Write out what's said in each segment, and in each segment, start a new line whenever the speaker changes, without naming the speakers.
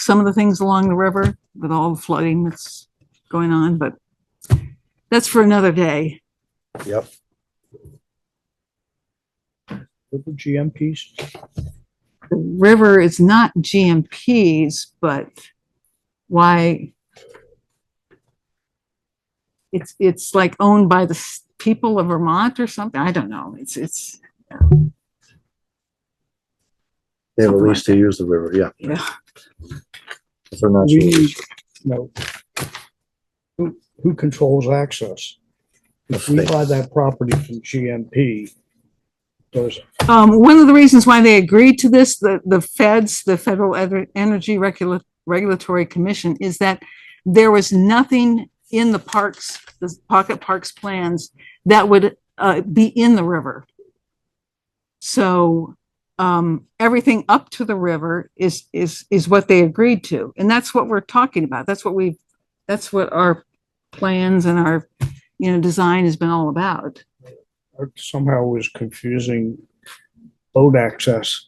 some of the things along the river with all the flooding that's going on, but that's for another day.
Yep. River GMPs,
The river is not GMPs, but why? It's, it's like owned by the s- people of Vermont or something. I don't know. It's, it's,
They have a
Something like
lease to use the river, yeah.
yeah.
If they're not
we
sure.
need, no. Who, who controls access? If we
State.
buy that property from GMP, does,
Um, one of the reasons why they agreed to this, the, the feds, the Federal Ener- Energy Regula- Regulatory Commission, is that there was nothing in the parks, the pocket parks plans that would, uh, be in the river. So, um, everything up to the river is, is, is what they agreed to. And that's what we're talking about. That's what we, that's what our plans and our, you know, design has been all about.
uh, somehow was confusing boat access.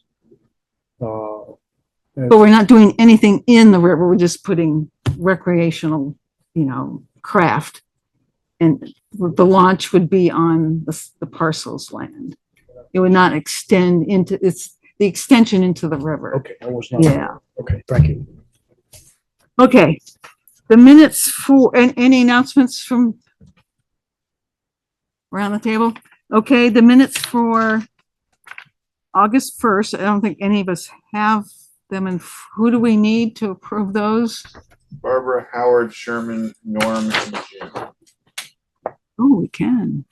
Uh,
But we're not doing anything in the river, we're just putting recreational, you know, craft. And the launch would be on the, the parcel's land. It would not extend into, it's the extension into the river.
okay, I was not,
Yeah,
okay, thank you.
okay. The minutes for, and any announcements from around the table? Okay, the minutes for August first, I don't think any of us have them, and who do we need to approve those?
Barbara, Howard, Sherman, Norm, and Jim.
Oh, we can.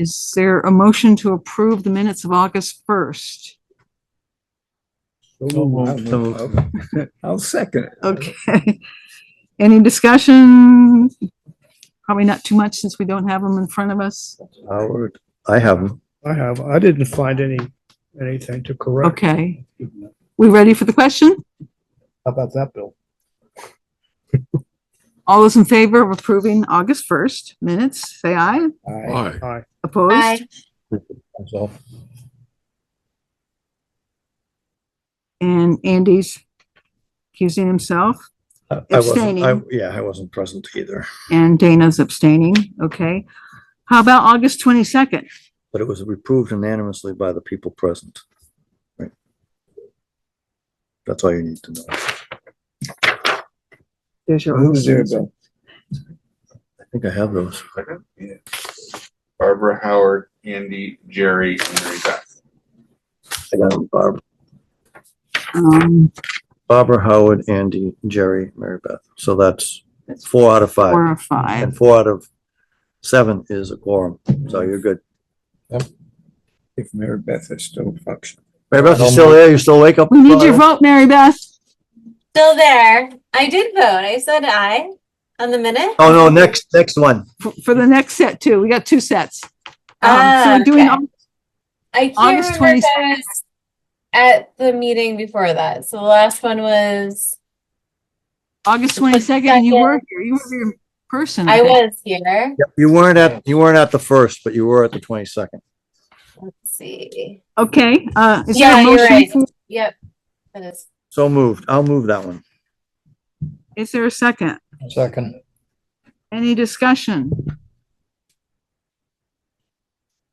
Is there a motion to approve the minutes of August first?
I'll second it.
Okay. Any discussion? Probably not too much since we don't have them in front of us.
Howard, I have them.
I have, I didn't find any, anything to correct.
Okay.
How
We ready for the question?
about that, Bill?
All those in favor of approving August first minutes, say aye.
Aye. Aye.
Opposed?
So
And Andy's accusing himself.
I I wasn't, I,
Abstaining.
yeah, I wasn't present either,
And Dana's abstaining, okay? How about August twenty-second?
but it was approved unanimously by the people present. Right. That's all you need to know. I
There's your.
Who's there, Bill?
think I have those.
Barbara, Howard, Andy, Jerry, and Mary Beth.
I got 'em, Barb-
Um,
Barbara, Howard, Andy, Jerry, Mary Beth. So that's four out of five.
four or five.
And four out of seven is a quorum, so you're good.
If Mary Beth is still functioning.
Mary Beth, you still there? You still wake up?
We need your vote, Mary Beth.
Still there. I did vote. I said aye on the minute.
Oh, no, next, next one.
For, for the next set too. We got two sets. Um, so
Ah,
we're doing,
okay. I can't
August
remember if I was at the meeting before that. So the last one was
August twenty-second, you were here, you were here in person.
I
think.
was here.
Yep, You weren't at, you weren't at the first, but you were at the twenty-second.
Let's see.
Okay, uh, is there
Yeah,
a
you're
motion?
right.
for-
Yep. That is
So moved. I'll move that one.
Is there a second?
Second.
Any discussion?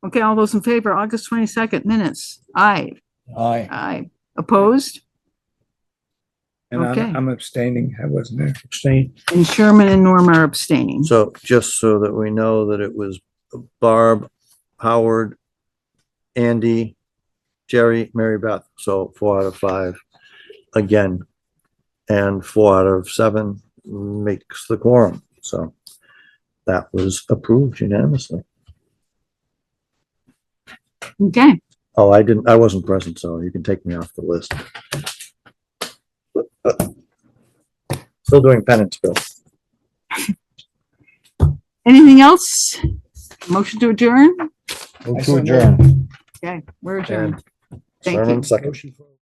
Okay, all those in favor, August twenty-second minutes. Aye,
Aye.
aye. Opposed?
And
Okay.
I'm, I'm abstaining. I wasn't there.
Abstain.
And Sherman and Norm are abstaining.
So just so that we know that it was Barb, Howard, Andy, Jerry, Mary Beth. So four out of five again. And four out of seven makes the quorum. So that was approved unanimously.
Okay,
Oh, I didn't, I wasn't present, so you can take me off the list. Still doing penance, Bill.
anything else? Motion to adjourn?
Move
to adjourn.
Okay, we're adjourned.
And
Thank you.
Sherman, second.
Motion for-